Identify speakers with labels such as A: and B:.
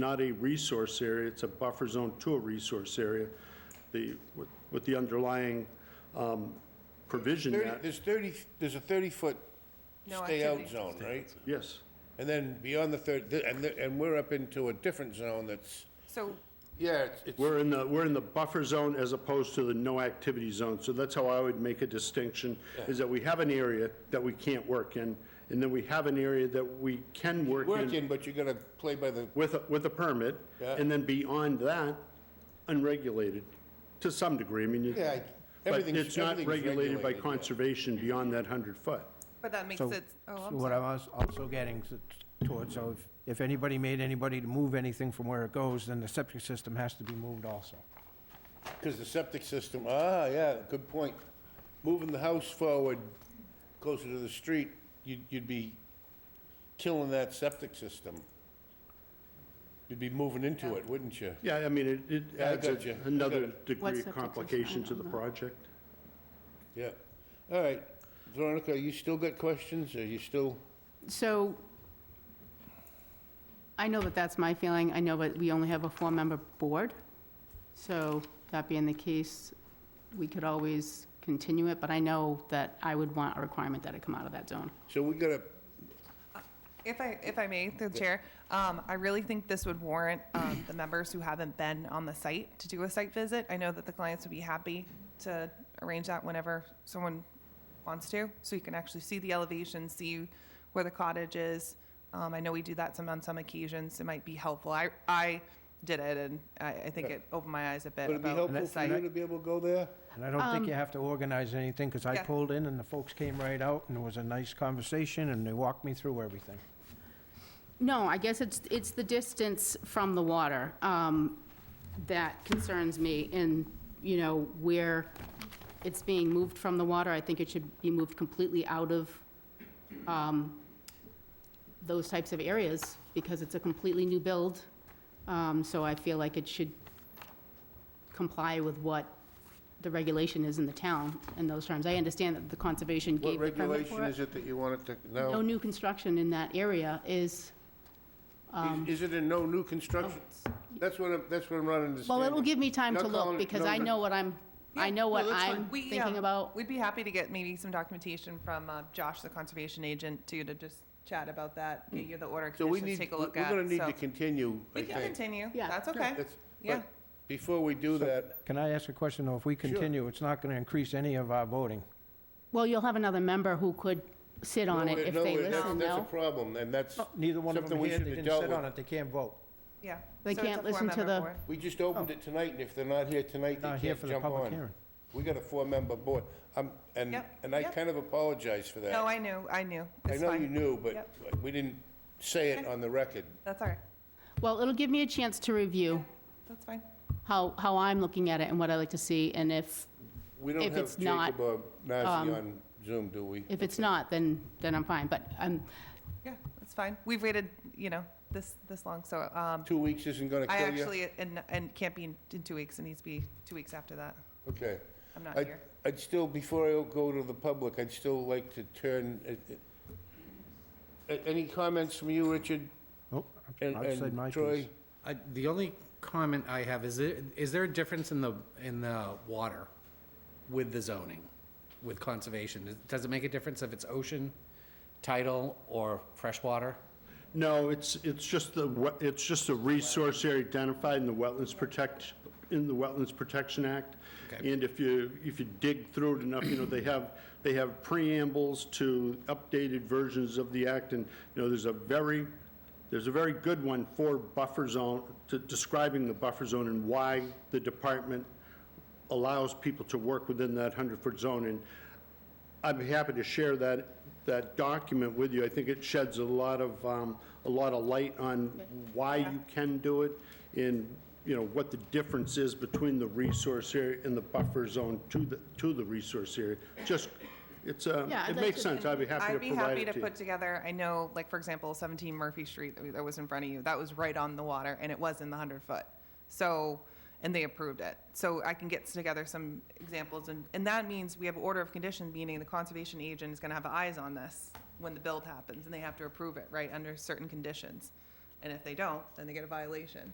A: not a resource area, it's a buffer zone to a resource area. The, with- with the underlying um, provision
B: Thirty-
A: that,
B: There's 30, there's a 30-foot
C: No
B: stay-out
C: activity.
B: zone, right?
A: yes,
B: And then beyond the 30, and, the- and we're up into a different zone that's,
C: So,
B: yeah, it's- it's,
A: we're in the, we're in the buffer zone as opposed to the no activity zone. So that's how I would make a distinction, is that we have an area that we can't work in, and then we have an area that we can work in.
B: working, but you're gonna play by the,
A: with, a- with a permit,
B: Yeah.
A: and then beyond that, unregulated, to some degree, I mean, you-
B: yeah,
A: but
B: everything's,
A: it's not
B: everything's
A: regulated by
B: yeah.
A: conservation beyond that 100 foot.
C: but that makes
D: So-
C: it, oh,
D: So
C: I'm
D: what
C: sorry.
D: I was also getting s- towards, so if, if anybody made anybody to move anything from where it goes, then the septic system has to be moved also.
B: Because the septic system, ah, yeah, good point. Moving the house forward closer to the street, you'd, you'd be killing that septic system. You'd be moving into it, wouldn't you?
A: Yeah, I mean, it- it
B: Yeah, I
A: adds a-
B: got you. I
A: another
B: got it.
A: degree
E: What's
A: of
E: the petition?
A: complication
E: I
A: to the
E: don't know.
A: project.
B: Yeah. All right. Veronica, you still got questions? Are you still?
E: So I know that that's my feeling. I know that we only have a four-member board. So that being the case, we could always continue it, but I know that I would want a requirement that it come out of that zone.
B: So we gotta,
C: If I, if I may, through the chair, um, I really think this would warrant, um, the members who haven't been on the site to do a site visit. I know that the clients would be happy to arrange that whenever someone wants to, so you can actually see the elevation, see where the cottage is. Um, I know we do that some, on some occasions, it might be helpful. I, I did it, and I, I think it opened my eyes a bit
B: would it be
C: about
B: helpful
C: the
B: for you
C: site.
B: to be able to go there?
D: And I don't think you have to organize anything, because I
C: Um, Yeah.
D: pulled in and the folks came right out, and it was a nice conversation, and they walked me through everything.
E: No, I guess it's, it's the distance from the water um, that concerns me and, you know, where it's being moved from the water. I think it should be moved completely out of um, those types of areas because it's a completely new build. Um, So I feel like it should comply with what the regulation is in the town in those terms. I understand that the conservation
B: What
E: gave the permit
B: regulation
E: for
B: is
E: it.
B: it that you want it to,
E: No
B: no?
E: new construction in that area is um,
B: Is- Is it a no new construction? That's what I'm, that's what I'm not understanding.
E: oh. Well, it'll give me time
B: Not
E: to look,
B: calling it-
E: because
B: no,
E: I
B: no.
E: know what I'm, I know what
B: that's
E: I'm
C: We, yeah,
E: thinking about.
C: We'd be happy to get maybe some documentation from uh, Josh, the conservation agent, too, to just chat about that, get you the order of
B: Mm. So we
C: conditions,
B: need,
C: take a
B: we're
C: look at.
B: gonna need
C: so-
B: to continue, I
C: We can
B: think.
C: continue,
E: Yeah.
C: that's okay.
B: That's-
C: Yeah.
B: But before we do that,
D: Can I ask a question, though? If we continue, it's not gonna increase any of our voting.
E: Well, you'll have another member who could sit on
B: No,
E: it if
B: no,
E: they
B: that's-
E: listen,
B: That's a
E: no?
B: problem, and that's,
D: Oh, Neither one of them
B: Something we
D: here,
B: should
D: they
B: have
D: didn't
B: dealt
D: sit
B: with.
D: on it, they can't vote.
C: Yeah.
E: They
C: So it's a
E: can't listen to
C: four-member
E: the-
C: board.
B: we just opened it tonight, and if they're not here tonight,
D: Not
B: they
D: here
B: can't
D: for the
B: jump
D: public
B: on.
D: hearing.
B: We got a four-member board, Um, and,
C: Yep,
B: and I
C: yep.
B: kind of apologize for that.
C: No, I knew, I knew.
B: I
C: It's
B: know you
C: fine.
B: knew, but we didn't say it on the record.
C: That's all right.
E: Well, it'll give me a chance to review
C: That's fine.
E: how, how I'm looking at it and what I like to see, and if,
B: We don't
E: If
B: have
E: it's not, um,
B: Jacob or Nazi on Zoom, do we?
E: if it's
B: Okay.
E: not, then, then I'm fine, but I'm,
C: Yeah, that's fine. We've waited, you know, this, this long, so, um,
B: Two weeks isn't gonna
C: I
B: kill you?
C: actually, and, and can't be in in two weeks, it needs to be two weeks after that.
B: Okay.
C: I'm not
B: I'd-
C: here.
B: I'd still, before I go to the public, I'd still like to turn, uh, uh, a- any comments from you, Richard?
D: Oh,
B: and-
D: I've said
B: and
D: my piece.
B: Troy?
F: I- The only comment I have is, there- is there a difference in the, in the water with the zoning, with conservation? Does it make a difference if it's ocean, tidal, or freshwater?
A: No, it's, it's just the, we- it's just a resource area identified in the Wetlands Protect, in the Wetlands Protection Act.
F: Okay.
A: And if you, if you dig through it enough, you know, they have, they have preambles to updated versions of the act, and, you know, there's a very, there's a very good one for buffer zone, to- describing the buffer zone and why the department allows people to work within that 100-foot zone. And I'd be happy to share that, that document with you. I think it sheds a lot of, um, a lot of light on why you can do it and, you know, what the difference is between the resource area and the buffer zone to the, to the resource area. Just, it's, um,
E: Yeah, I'd
A: it
E: like
A: makes
E: to-
A: sense. I'd be happy to
C: I'd be
A: provide
C: happy
A: it
C: to
A: to you.
C: put together, I know, like, for example, 17 Murphy Street that we- that was in front of you, that was right on the water, and it was in the 100-foot. So, and they approved it. So I can get together some examples, and, and that means we have order of condition, meaning the conservation agent is gonna have eyes on this when the build happens, and they have to approve it, right, under certain conditions. And if they don't, then they get a violation.